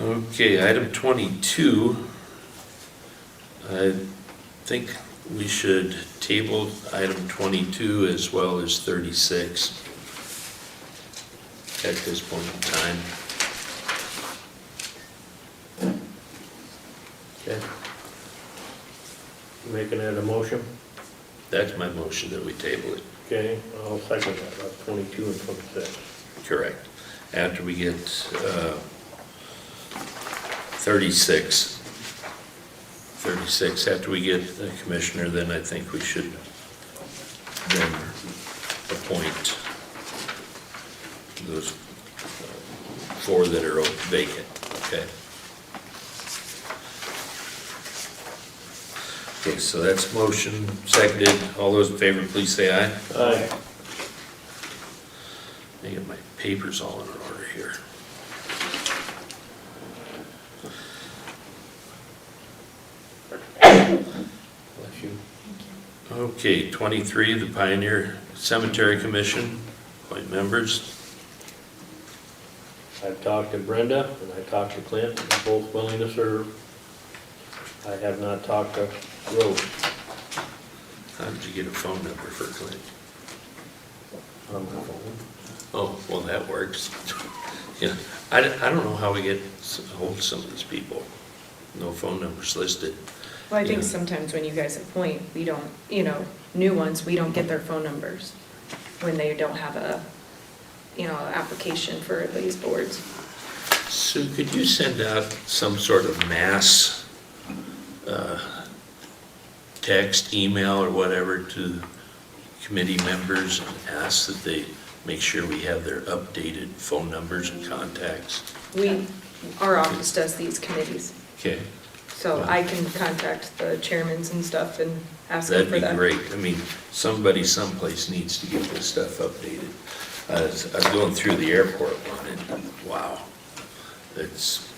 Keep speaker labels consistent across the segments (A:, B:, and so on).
A: Okay, item twenty-two. I think we should table item twenty-two as well as thirty-six at this point in time.
B: Okay. Making that a motion?
A: That's my motion that we table it,
B: Okay, I'll second that, about twenty-two and twenty-six.
A: correct. After we get, uh, thirty-six. Thirty-six, after we get the commissioner, then I think we should then appoint those four that are vacant, okay? Okay, so that's motion, seconded. All those in favor, please say aye.
B: Aye.
A: I get my papers all in order here.
B: Bless you.
A: Okay, 23, the Pioneer Cemetery Commission, appoint members.
B: I've talked to Brenda and I talked to Clint, they're both willing to serve. I have not talked to Rose
A: How did you get a phone number for Clint?
B: on my phone.
A: Oh, well, that works. Yeah, I don't I don't know how we get s- hold of some of these people. No phone numbers listed.
C: Well, I think
A: Yeah.
C: sometimes when you guys appoint, we don't, you know, new ones, we don't get their phone numbers when they don't have a, you know, application for these boards.
A: Sue, could you send out some sort of mass uh, text, email, or whatever to committee members and ask that they make sure we have their updated phone numbers and contacts?
C: We, our office does these committees,
A: Okay,
C: so I can contact the chairmans and stuff and ask
A: that'd
C: them for
A: be
C: that.
A: great. I mean, somebody someplace needs to get this stuff updated. I was I was going through the airport one, and wow, it's,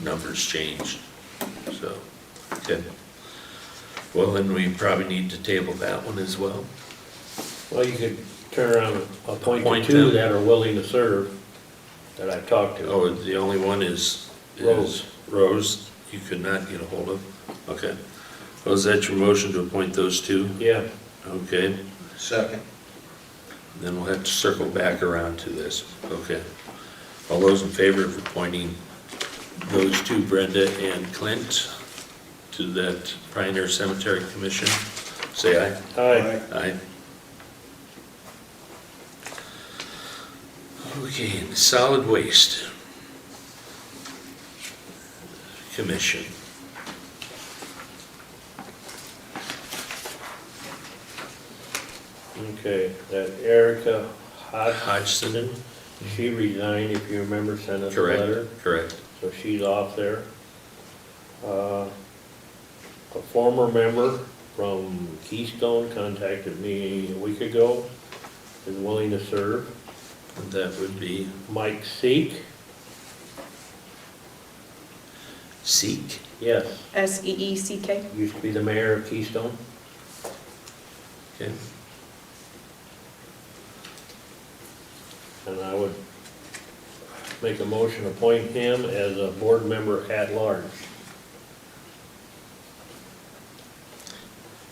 A: numbers changed, so, okay. Well, then we probably need to table that one as well.
B: Well, you could turn around and appoint the
A: Appoint
B: two
A: them.
B: that are willing to serve that I've talked to.
A: Oh, the only one is, is
B: Rose.
A: Rose, you could not get a hold of? Okay. Well, is that your motion to appoint those two?
B: Yeah,
A: Okay,
D: Second.
A: then we'll have to circle back around to this, okay? All those in favor of appointing those two, Brenda and Clint, to that Pioneer Cemetery Commission, say aye.
B: aye.
A: Aye. Okay, and solid waste. Commission.
B: Okay, that Erica Hodge,
A: Hodgson,
B: she resigned, if you remember, sent us a letter.
A: correct, correct.
B: So she's off there. Uh, A former member from Keystone contacted me a week ago, is willing to serve.
A: And That would be
B: Mike Seek,
A: seek.
B: yes,
C: S E E C K?
B: used to be the mayor of Keystone.
A: Okay,
B: And I would make a motion to appoint him as a board member at large.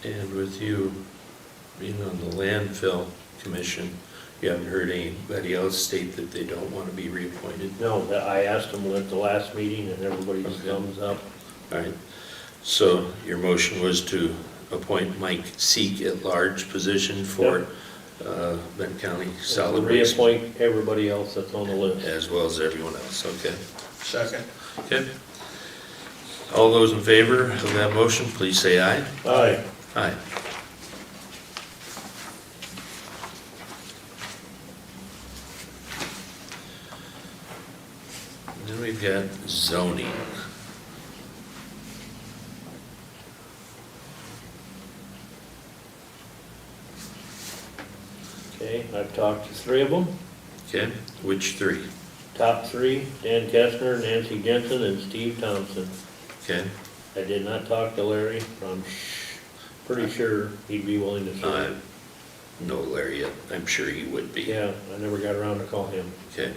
A: and with you being on the landfill commission, you haven't heard anybody else state that they don't want to be reappointed?
B: No, that- I asked him at the last meeting and everybody's
A: Okay.
B: thumbs up.
A: All right, so your motion was to appoint Mike Seek at large position for uh, Benton County Solid Waste,
B: Reappoint everybody else that's on the list.
A: as well as everyone else, okay?
D: Second.
A: Okay. All those in favor of that motion, please say aye.
B: Aye.
A: Aye. Then we've got zoning.
B: Okay, I've talked to three of them.
A: Okay, which three?
B: Top three, Dan Kestner, Nancy Jensen, and Steve Thompson.
A: Okay,
B: I did not talk to Larry, but I'm sh- pretty sure he'd be willing to
A: I
B: serve.
A: know Uh, Larry, I'm sure he would be.
B: Yeah, I never got around to call him.
A: Okay.